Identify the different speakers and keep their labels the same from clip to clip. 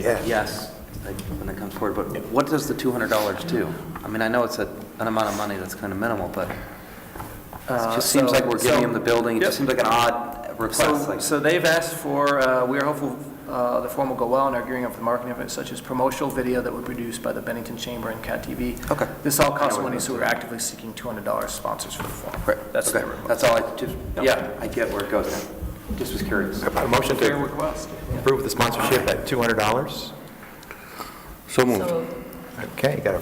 Speaker 1: Yeah.
Speaker 2: yes, like, when it comes forward, but what does the $200 do? I mean, I know it's a- an amount of money that's kind of minimal, but
Speaker 3: Uh,
Speaker 2: it just seems like we're giving them the building, it just seems like an odd request,
Speaker 3: So,
Speaker 2: like,
Speaker 3: so they've asked for, uh, we are hopeful uh, the form will go well and are gearing up for marketing efforts such as promotional video that were produced by the Bennington Chamber and Cat TV.
Speaker 2: Okay.
Speaker 3: This all costs money, so we're actively seeking $200 sponsors for the form.
Speaker 2: Right,
Speaker 3: That's
Speaker 2: okay,
Speaker 3: their request.
Speaker 2: that's all, I just, yeah, I get where it goes now, just was curious.
Speaker 4: A motion
Speaker 3: Fair
Speaker 4: to
Speaker 3: request.
Speaker 4: approve the sponsorship at $200?
Speaker 1: So moved.
Speaker 5: So,
Speaker 4: Okay, got a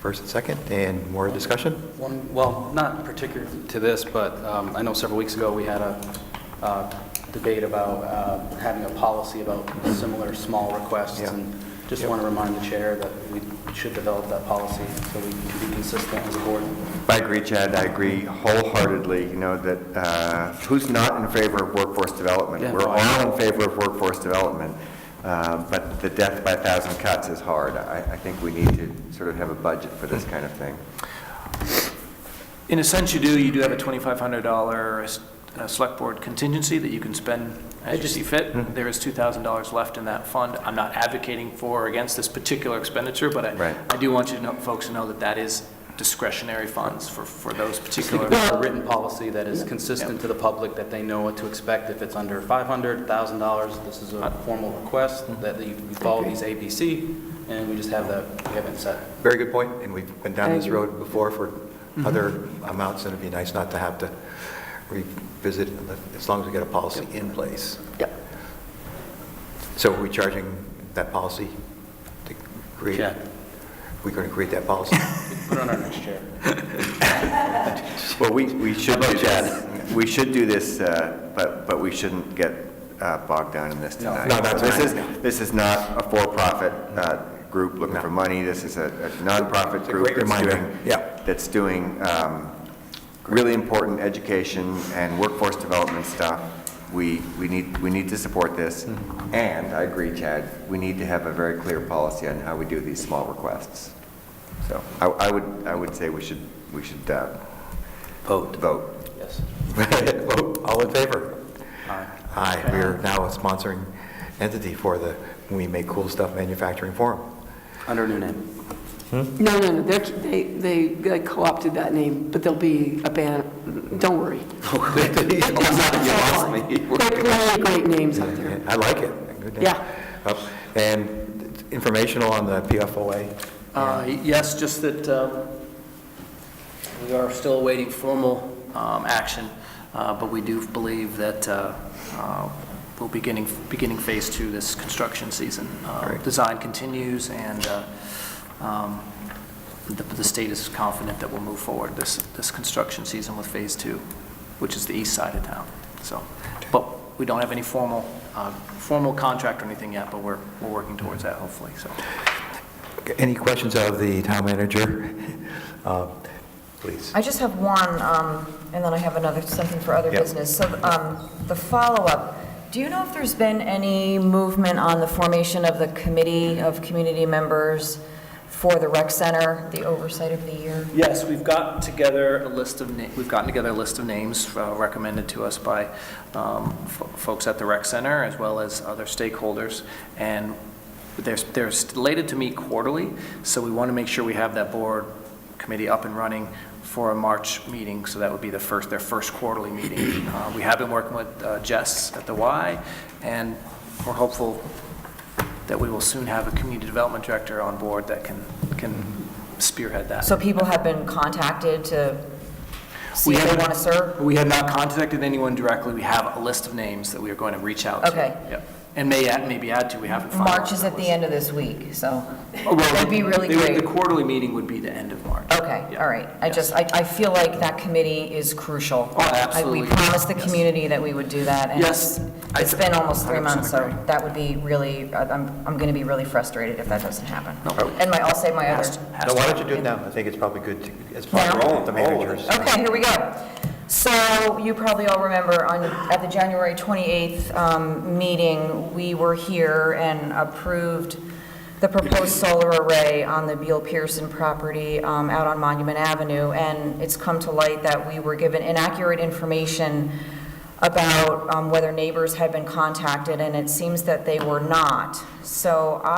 Speaker 4: first and second, and more discussion?
Speaker 6: One, well, not particular to this, but um, I know several weeks ago, we had a uh, debate about uh, having a policy about similar small requests,
Speaker 4: Yeah.
Speaker 6: and just want to remind the chair that we should develop that policy so we can be consistent as a board.
Speaker 1: I agree, Chad, I agree wholeheartedly, you know, that, uh, who's not in favor of workforce development?
Speaker 6: Yeah.
Speaker 1: We're all in favor of workforce development, uh, but the death by a thousand cuts is hard. I I think we need to sort of have a budget for this kind of thing.
Speaker 3: In a sense, you do, you do have a $2,500 s- uh, Select Board contingency that you can spend as you see
Speaker 2: Mm-hmm.
Speaker 3: fit. There is $2,000 left in that fund. I'm not advocating for or against this particular expenditure, but I,
Speaker 1: Right.
Speaker 3: I do want you to know, folks to know that that is discretionary funds for, for those
Speaker 6: Just think
Speaker 3: particular.
Speaker 6: about a written policy that is consistent to the public, that they know what to expect if it's under $500,000. This is a formal request, that you you follow these ABC, and we just have that, we haven't set.
Speaker 4: Very good point, and we've went down this road before for
Speaker 5: Mm-hmm.
Speaker 4: other amounts, and it'd be nice not to have to revisit, as long as we get a policy in place.
Speaker 5: yep.
Speaker 4: So are we charging that policy to create?
Speaker 6: Yeah.
Speaker 4: We're going to create that policy?
Speaker 6: Put it on our next chair.
Speaker 1: Well, we, we should do this, we should do this, uh, but, but we shouldn't get uh, bogged down in this tonight.
Speaker 4: No, that's
Speaker 1: This
Speaker 4: fine.
Speaker 1: is, this is not a for-profit uh, group looking for money, this is a a nonprofit
Speaker 4: It's a
Speaker 1: group.
Speaker 4: great
Speaker 1: that's
Speaker 4: reminder.
Speaker 1: doing-
Speaker 4: Yeah.
Speaker 1: That's doing um, really important education and workforce development stuff. We, we need, we need to support this,
Speaker 4: Mm-hmm.
Speaker 1: and I agree, Chad, we need to have a very clear policy on how we do these small requests. So I, I would, I would say we should, we should uh,
Speaker 2: Vote.
Speaker 1: vote.
Speaker 6: Yes.
Speaker 4: Vote. All in favor?
Speaker 6: Aye.
Speaker 4: Aye, we are now a sponsoring entity for the We Make Cool Stuff Manufacturing Forum.
Speaker 2: Under a new name.
Speaker 5: No, no, no, they're- they, they they co-opted that name, but there'll be a band, don't worry. There are plenty of great names out there.
Speaker 4: I like it. Good name.
Speaker 5: Yeah.
Speaker 4: Up. And informational on the PFOA?
Speaker 3: Uh, Yes, just that um, we are still awaiting formal um, action, uh, but we do believe that uh, uh, we'll be beginning, beginning phase two this construction season. Uh,
Speaker 4: Great.
Speaker 3: Design continues, and uh, um, the the state is confident that we'll move forward this, this construction season with phase two, which is the east side of town, so. But we don't have any formal, uh, formal contract or anything yet, but we're, we're working towards that, hopefully, so.
Speaker 4: Any questions of the town manager? Uh, Please.
Speaker 7: I just have one, um, and then I have another, something for other
Speaker 4: Yep.
Speaker 7: business. So um, the follow-up, do you know if there's been any movement on the formation of the committee of community members for the rec center, the oversight of the year?
Speaker 3: Yes, we've got together a list of, na- we've gotten together a list of names uh, recommended to us by um, fo- folks at the rec center as well as other stakeholders. And they're, they're slated to meet quarterly, so we want to make sure we have that board committee up and running for a March meeting, so that would be the first, their first quarterly meeting. Uh, We have been working with uh, Jess at the Y, and we're hopeful that we will soon have a community development director on board that can, can spearhead that.
Speaker 7: So people have been contacted to see
Speaker 3: We
Speaker 7: if they
Speaker 3: haven't-
Speaker 7: want to serve?
Speaker 3: We have not contacted anyone directly. We have a list of names that we are going to reach out to.
Speaker 7: Okay.
Speaker 3: Yep. And may, add- maybe add to, we haven't finalized.
Speaker 7: March is at
Speaker 3: that
Speaker 7: the
Speaker 3: list.
Speaker 7: end of this week, so
Speaker 3: Oh, well,
Speaker 7: that'd be really
Speaker 3: they would-
Speaker 7: great.
Speaker 3: The quarterly meeting would be the end of March.
Speaker 7: Okay,
Speaker 3: Yeah.
Speaker 7: all right. I
Speaker 3: Yes.
Speaker 7: just, I, I feel like that committee is crucial.
Speaker 3: Oh,
Speaker 7: I-
Speaker 3: absolutely.
Speaker 7: We promised the
Speaker 3: Yes.
Speaker 7: community that we would do that, and
Speaker 3: Yes.
Speaker 7: it's
Speaker 3: I
Speaker 7: it's
Speaker 3: d-
Speaker 7: been almost three
Speaker 3: 100%
Speaker 7: months, so
Speaker 3: agree.
Speaker 7: that would be really, I- I'm, I'm going to be really frustrated if that doesn't happen.
Speaker 3: No.
Speaker 7: And my, I'll say my
Speaker 3: Has
Speaker 7: other.
Speaker 3: to- has to
Speaker 4: No, why
Speaker 3: happen.
Speaker 4: don't you do it now? I think it's probably good, to- it's
Speaker 7: Now?
Speaker 4: probably the managers.
Speaker 7: Oh, Okay, here we go. So you probably all remember on, at the January 28th um, meeting, we were here and approved the proposed solar array on the Beal Pearson property um, out on Monument Avenue, and it's come to light that we were given inaccurate information um, about um, whether neighbors had been contacted, and it seems that they were not. So